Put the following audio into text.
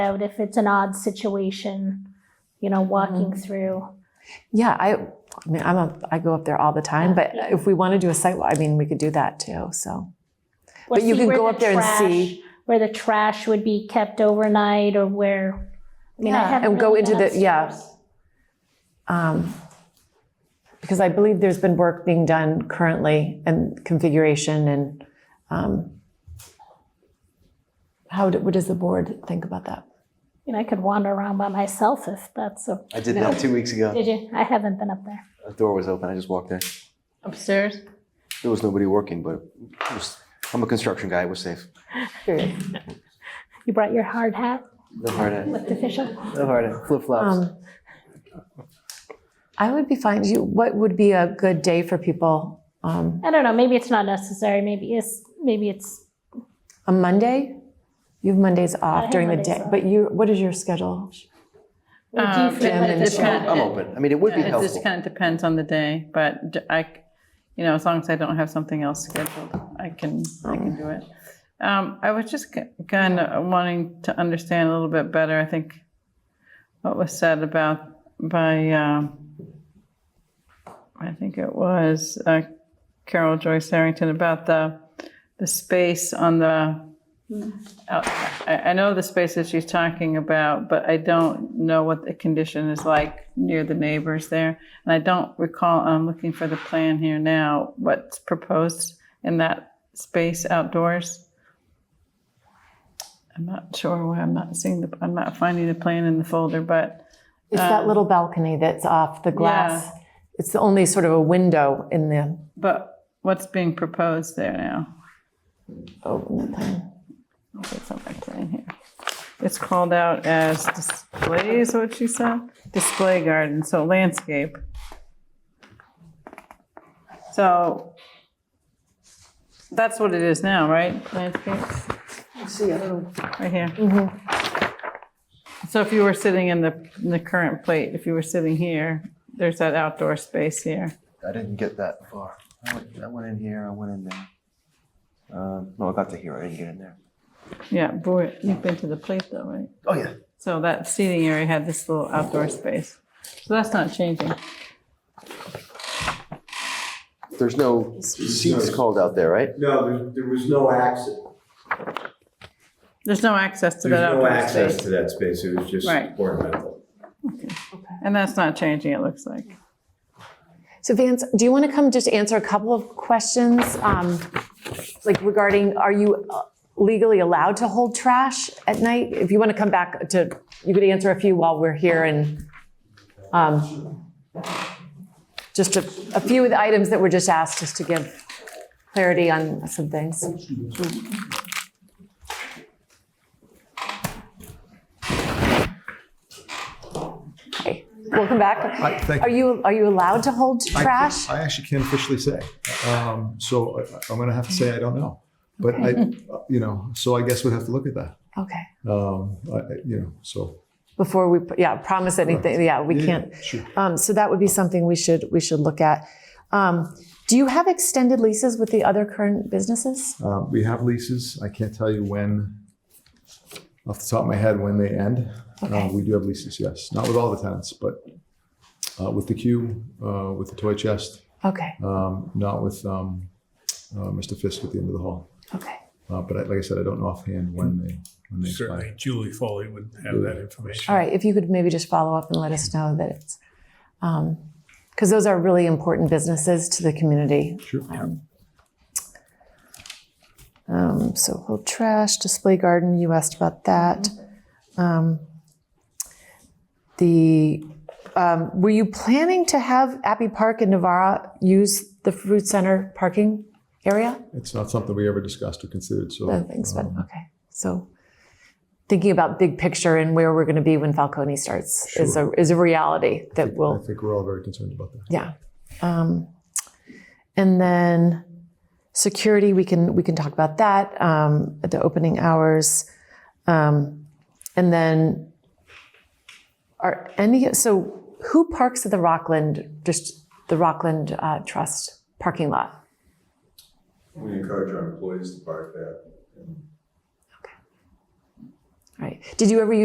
out if it's an odd situation, you know, walking Mm-hmm. through. Yeah, I, I mean, I'm a, I go up there all the time, but if we want to do a site walk, I mean, we could do that too. So, Or But you see can where go the up there and see. trash- Where the trash would be kept overnight or where, I mean, I Yeah, haven't and go really into been the- yeah. upstairs. um, because I believe there's been work being done currently and configuration and um, how do, what does the board think about that? You know, I could wander around by myself if that's, a- I did that two weeks ago. did you? I haven't been up there. A door was open. I just walked there. Upstairs? There was nobody working, but it was, I'm a construction guy. It was safe. You brought your hard hat No hard hat. with the official? No hard hat. Flip flops. Um, I would be fine. You, what would be a good day for people? Um, I don't know, maybe it's not necessary, maybe it's, maybe it's, a Monday? You have Mondays off have during the Mondays day, off. but you, what is your schedule? do you Um, feel Jim like and it's Jim. not- I'm open. I mean, it would be It Um, just helpful. kind of depends on the day, but d- I, c- you know, as long as I don't have something else scheduled, I can, I can do it. Um, I was just kind of wanting to understand a little bit better, I think, what was said about by, um, I think it was uh, Carol Joyce Harrington about the, the space on the, out- I, I know the space that she's talking about, but I don't know what the condition is like near the neighbors there. And I don't recall, I'm looking for the plan here now, what's proposed in that space outdoors. I'm not sure why I'm not seeing the, I'm not finding the plan in the folder, but It's Um, that little balcony that's off the glass. It's the only sort of a window in the. But what's being proposed there now? Oh, it's on my plan here. It's called out as display is what she said? Display garden, so landscape. So that's what it is now, right? Landscape, See, I don't know. right here. So if you were sitting in the, in the current plate, if you were sitting here, there's that outdoor space here. I didn't get that far. I went, I went in here. I went in there. Um, no, I got to here. I didn't get in there. Yeah, boy, you've been to the plate though, right? Oh yeah. So that seating area had this little outdoor space. So that's not changing. There's no seats called out there, right? No, there, there was no access. There's no access to There's that no outdoor access space. to that space. It was just Right. ornamental. And that's not changing, it looks like. So Vance, do you want to come just answer a couple of questions, um, like regarding are you uh, legally allowed to hold trash at night? If you want to come back to, you could answer a few while we're here and um, just a, a few of the items that were just asked, just to give clarity on some things. Hi, welcome back. I- thank- Are you are you allowed to hold I can't- trash? I actually can't officially say. Um, So I- I'm going to have to say I don't know. But I, uh, you know, so I guess we'd have to look at that. okay. Um, I- I- You know, so. Before we yeah promise anything yeah we Yeah, can't. Sure. Um, so that would be something we should we should look at. Um, do you have extended leases with the other current businesses? Uh, We have leases. I can't tell you when, off the top of my head, when they end. Uh, Okay. We do have leases, yes. Not with all the tenants, but uh, with the queue, uh, with the toy chest, Okay. um, not with um, uh, Mr. Fisk at the end of the hall. Okay. Uh, But I- like I said, I don't know offhand when they, when they expire. Certainly, Julie Foley would have that information. All right. If you could maybe just follow up and let us know that it's because those are really important businesses to the community. Sure. Um, so whole trash, display garden, you asked about that. Um, the, um, were you planning to have Abbey Park and Navara use the food center parking area? It's not something we ever discussed or considered, so. No, thanks, but, um, okay. So thinking about big picture and where we're gonna be when Falcone starts is a, is a reality that I will, think we're all very concerned about that. yeah. Um, and then security, we can we can talk about that um, at the opening hours, um, and then are any so who parks at the Rockland just the Rockland uh, Trust parking lot? We encourage our employees to park there. Right? Did you ever